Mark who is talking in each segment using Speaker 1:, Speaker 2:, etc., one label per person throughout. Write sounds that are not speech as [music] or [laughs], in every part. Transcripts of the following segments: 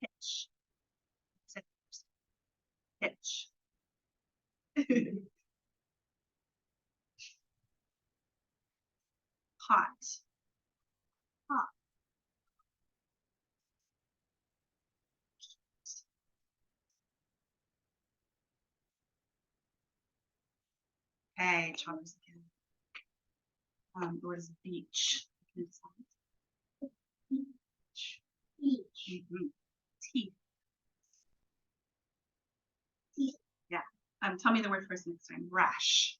Speaker 1: pitch. [laughs] Pot. Pot. Okay, Thomas again. Um, what is beach? Beach. Mm-hmm. Beach. Teeth. Um, tell me the word first next time. Rash.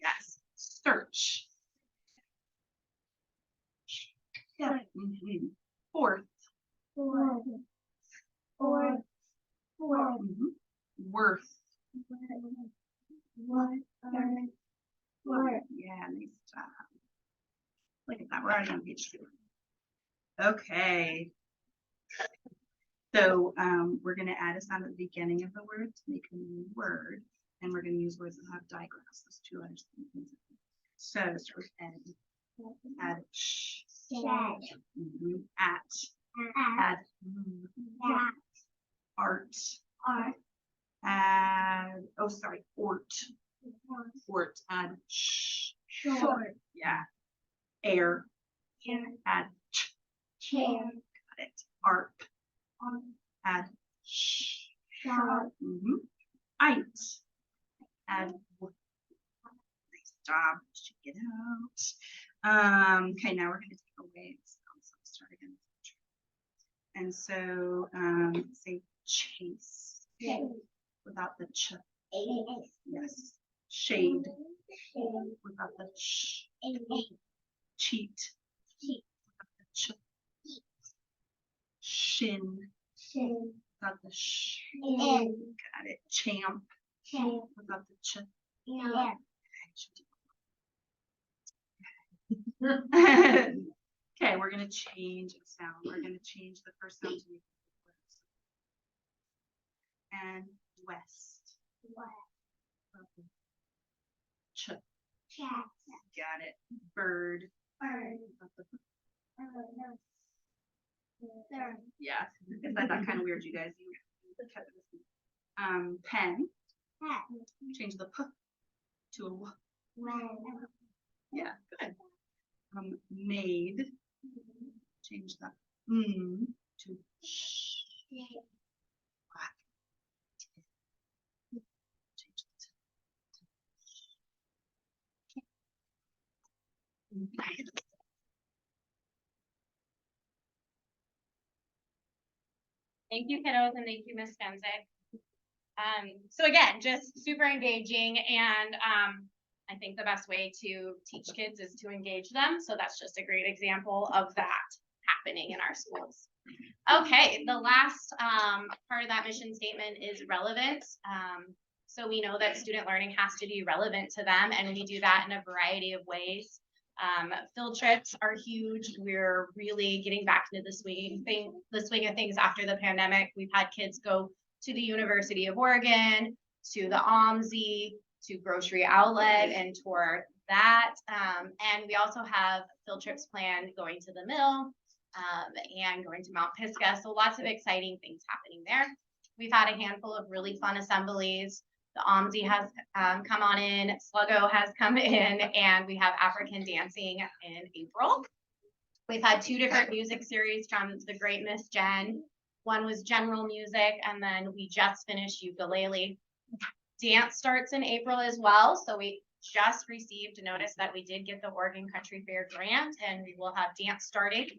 Speaker 1: Yes. Search. Yeah. Mhm. Fourth.
Speaker 2: Four. Four. Four.
Speaker 1: Mhm. Worth.
Speaker 2: One. Four.
Speaker 1: Yeah, nice job. Look at that. We're already on page two. Okay. So um, we're gonna add a sound at the beginning of the word to make a new word, and we're gonna use words that have digraphs. Those two letters. So start with N. Add sh.
Speaker 2: Shed.
Speaker 1: Mhm. At. Add mm,
Speaker 2: That.
Speaker 1: art.
Speaker 2: Are.
Speaker 1: Add. Oh, sorry. Ort. Ort. Add sh.
Speaker 2: Short.
Speaker 1: Yeah. Air. Add ch.
Speaker 2: Chair.
Speaker 1: Got it. Arp.
Speaker 2: On.
Speaker 1: Add sh.
Speaker 2: Short.
Speaker 1: Mm-hmm. Eight. And w- nice job. Check it out. Um, okay, now we're gonna take away. the sound, so let's start again. And so um say chase without the ch.
Speaker 2: Eight.
Speaker 1: Yes. Shade without the sh. Cheat.
Speaker 2: Cheat.
Speaker 1: without the Ch. Shin without the sh. Got it. Champ without the ch. Okay, we're gonna change the sound. We're gonna change the first sound to make. And west. Ch, got it. Bird. Yeah, is that that kind of weird, you guys? You kept it the same. Um, pen, change the p to a w. Yeah, good. Um, made, change the mm to sh. change it to- to- Nice.
Speaker 3: Thank you, kiddos, and thank you, Miss Fensick. Um, so again, just super engaging and, um, I think the best way to teach kids is to engage them. So that's just a great example of that happening in our schools. Okay, the last, um, part of that mission statement is relevant. Um, so we know that student learning has to be relevant to them and we do that in a variety of ways. Um, field trips are huge. We're really getting back into the swing thing, the swing of things after the pandemic. We've had kids go to the University of Oregon, to the OMSI, to Grocery Outlet and tour that. Um, and we also have field trips planned going to the mill, um, and going to Mount Pisgah. So lots of exciting things happening there. We've had a handful of really fun assemblies. The OMSI has um, come on in, Sluggo has come in, and we have African dancing in April. We've had two different music series from the great Miss Jen. One was general music, and then we just finished ukulele. Dance starts in April as well, so we just received notice that we did get the Oregon Country Fair grant, and we will have dance starting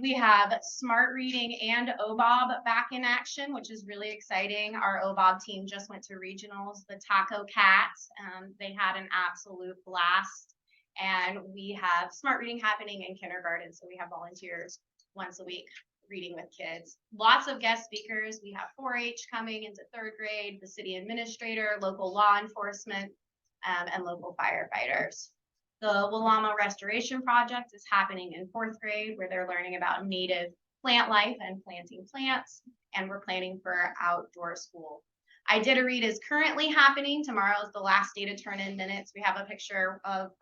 Speaker 3: we have smart reading and OBOB back in action, which is really exciting. Our OBOB team just went to regionals, the Taco Cats. Um, they had an absolute blast. And we have smart reading happening in kindergarten. So we have volunteers once a week reading with kids. Lots of guest speakers. We have 4 H coming into third grade, the city administrator, local law enforcement, um, and local firefighters. The Willama Restoration Project is happening in fourth grade where they're learning about native plant life and planting plants. And we're planning for outdoor school. I did a read is currently happening. Tomorrow is the last day to turn in minutes. We have a picture of